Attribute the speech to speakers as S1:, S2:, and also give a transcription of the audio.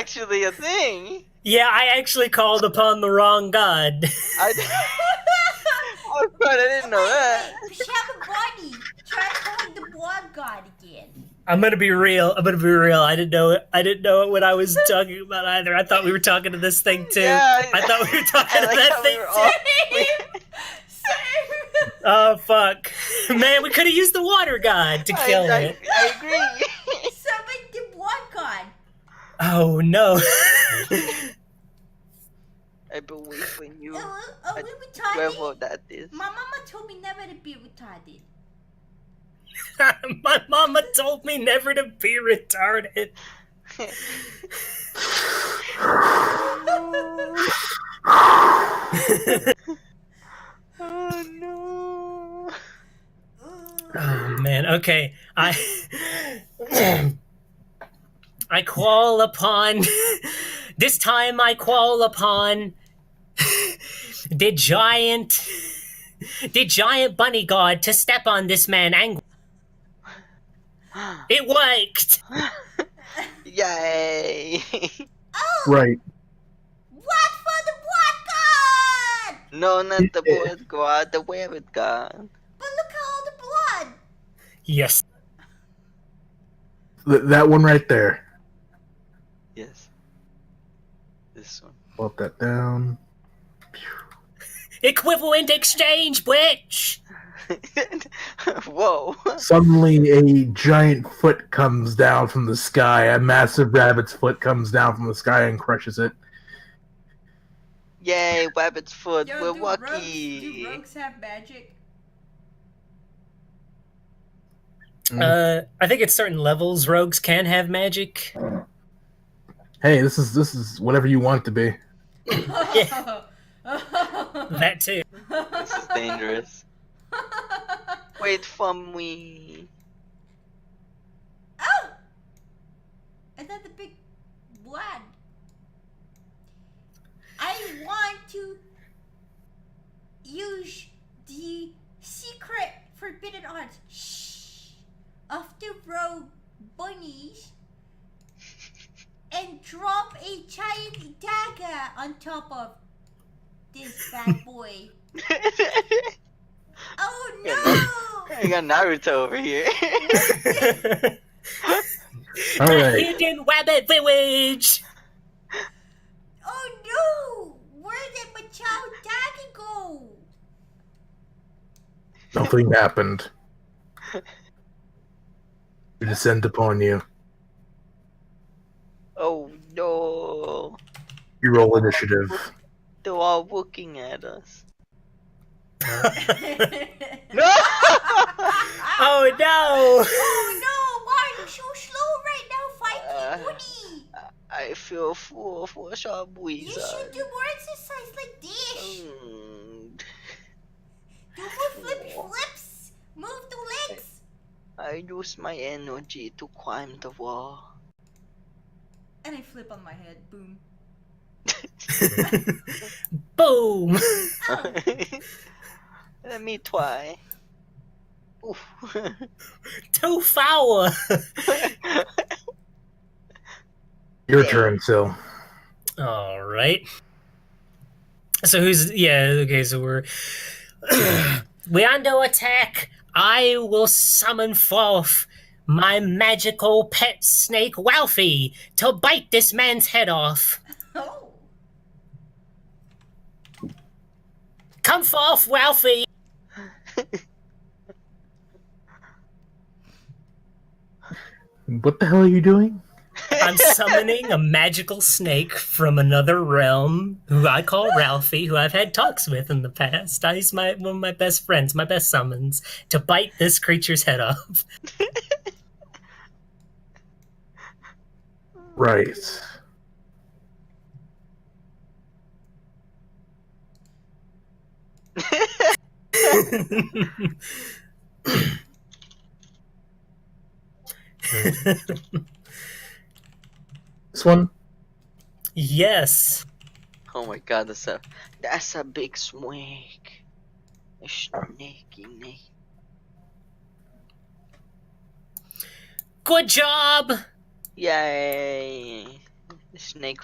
S1: actually a thing.
S2: Yeah, I actually called upon the wrong god.
S1: I, oh, God, I didn't know that.
S3: We should have a body. Try calling the blood god again.
S2: I'm gonna be real. I'm gonna be real. I didn't know it. I didn't know it when I was talking about either. I thought we were talking to this thing too.
S1: Yeah, I-
S2: I thought we were
S1: I
S2: talking to
S1: like
S2: that
S1: how
S2: thing
S1: we were
S2: too.
S1: all-
S3: Same.
S2: Oh fuck, man! We could have used the water god to
S1: I,
S2: kill
S1: I-
S2: it.
S1: I agree.
S3: Summon the blood god.
S2: Oh no.
S1: I believe in you.
S3: Are we- are
S1: I-
S3: we retarded?
S1: Whoever that is.
S3: My mama told me never to be retarded.
S2: My mama told me never to be retarded.
S1: oh no.
S2: Oh man. Okay. I I call upon this time I call upon the giant the giant bunny god to step on this man and it worked.
S1: Yay.
S4: Right.
S3: What for the blood god?
S1: no, not the board god, the rabbit god.
S3: But look at all the blood.
S2: Yes.
S4: Th- that one right there.
S1: Yes. This one.
S4: Pop that down.
S2: Equivalent exchange, bitch.
S1: Whoa.
S4: Suddenly, a giant foot comes down from the sky. A massive rabbit's foot comes down from the sky and crushes it.
S1: Yay, rabbit's foot.
S3: Yo,
S1: We're
S3: do Rogues, do
S1: lucky.
S3: rogues have magic?
S4: Hmm.
S2: Uh, I think at certain levels, rogues can have magic.
S4: Hey, this is this is whatever you want it to be.
S2: Yeah. That too.
S1: This is dangerous. Wait for me.
S3: Oh! Another big blood. I want to use the secret forbidden art shh, of the rogue bunnies and drop a giant dagger on top of this bad boy. oh no!
S1: I got Naruto over here.
S4: All right.
S2: Hidden rabbit village.
S3: Oh no! Where did my child dagger go?
S4: Nothing happened. We descend upon you.
S1: oh no.
S4: You roll initiative.
S1: They're all looking at us.
S3: oh
S1: No!
S2: Oh no.
S3: no! Why are you so slow right now, fighting
S1: Uh,
S3: Woody?
S1: I feel full for some
S3: You
S1: reason.
S3: should do more exercise like this.
S1: Mm,
S3: Do more flippy flips. Move the legs.
S1: I use my energy to climb the wall.
S3: And I flip on my head. Boom.
S2: Boom.
S3: Oh,
S1: Let me try. Oof.
S2: Too foul.
S4: Your turn, Sil.
S2: All right. So who's yeah, okay, so we're we're under attack. I will summon forth my magical pet snake Ralphie to bite this man's head off.
S3: oh.
S2: Come forth, Ralphie.
S4: What the hell are you doing?
S2: I'm summoning a magical snake from another realm who I call Ralphie, who I've had talks with in the past. I He's my one of my best friends, my best summons, to bite this creature's head off.
S4: Right. This one.
S2: yes.
S1: oh my god, that's a that's a big snake. A snakey snake.
S2: Good job.
S1: Yay! The snake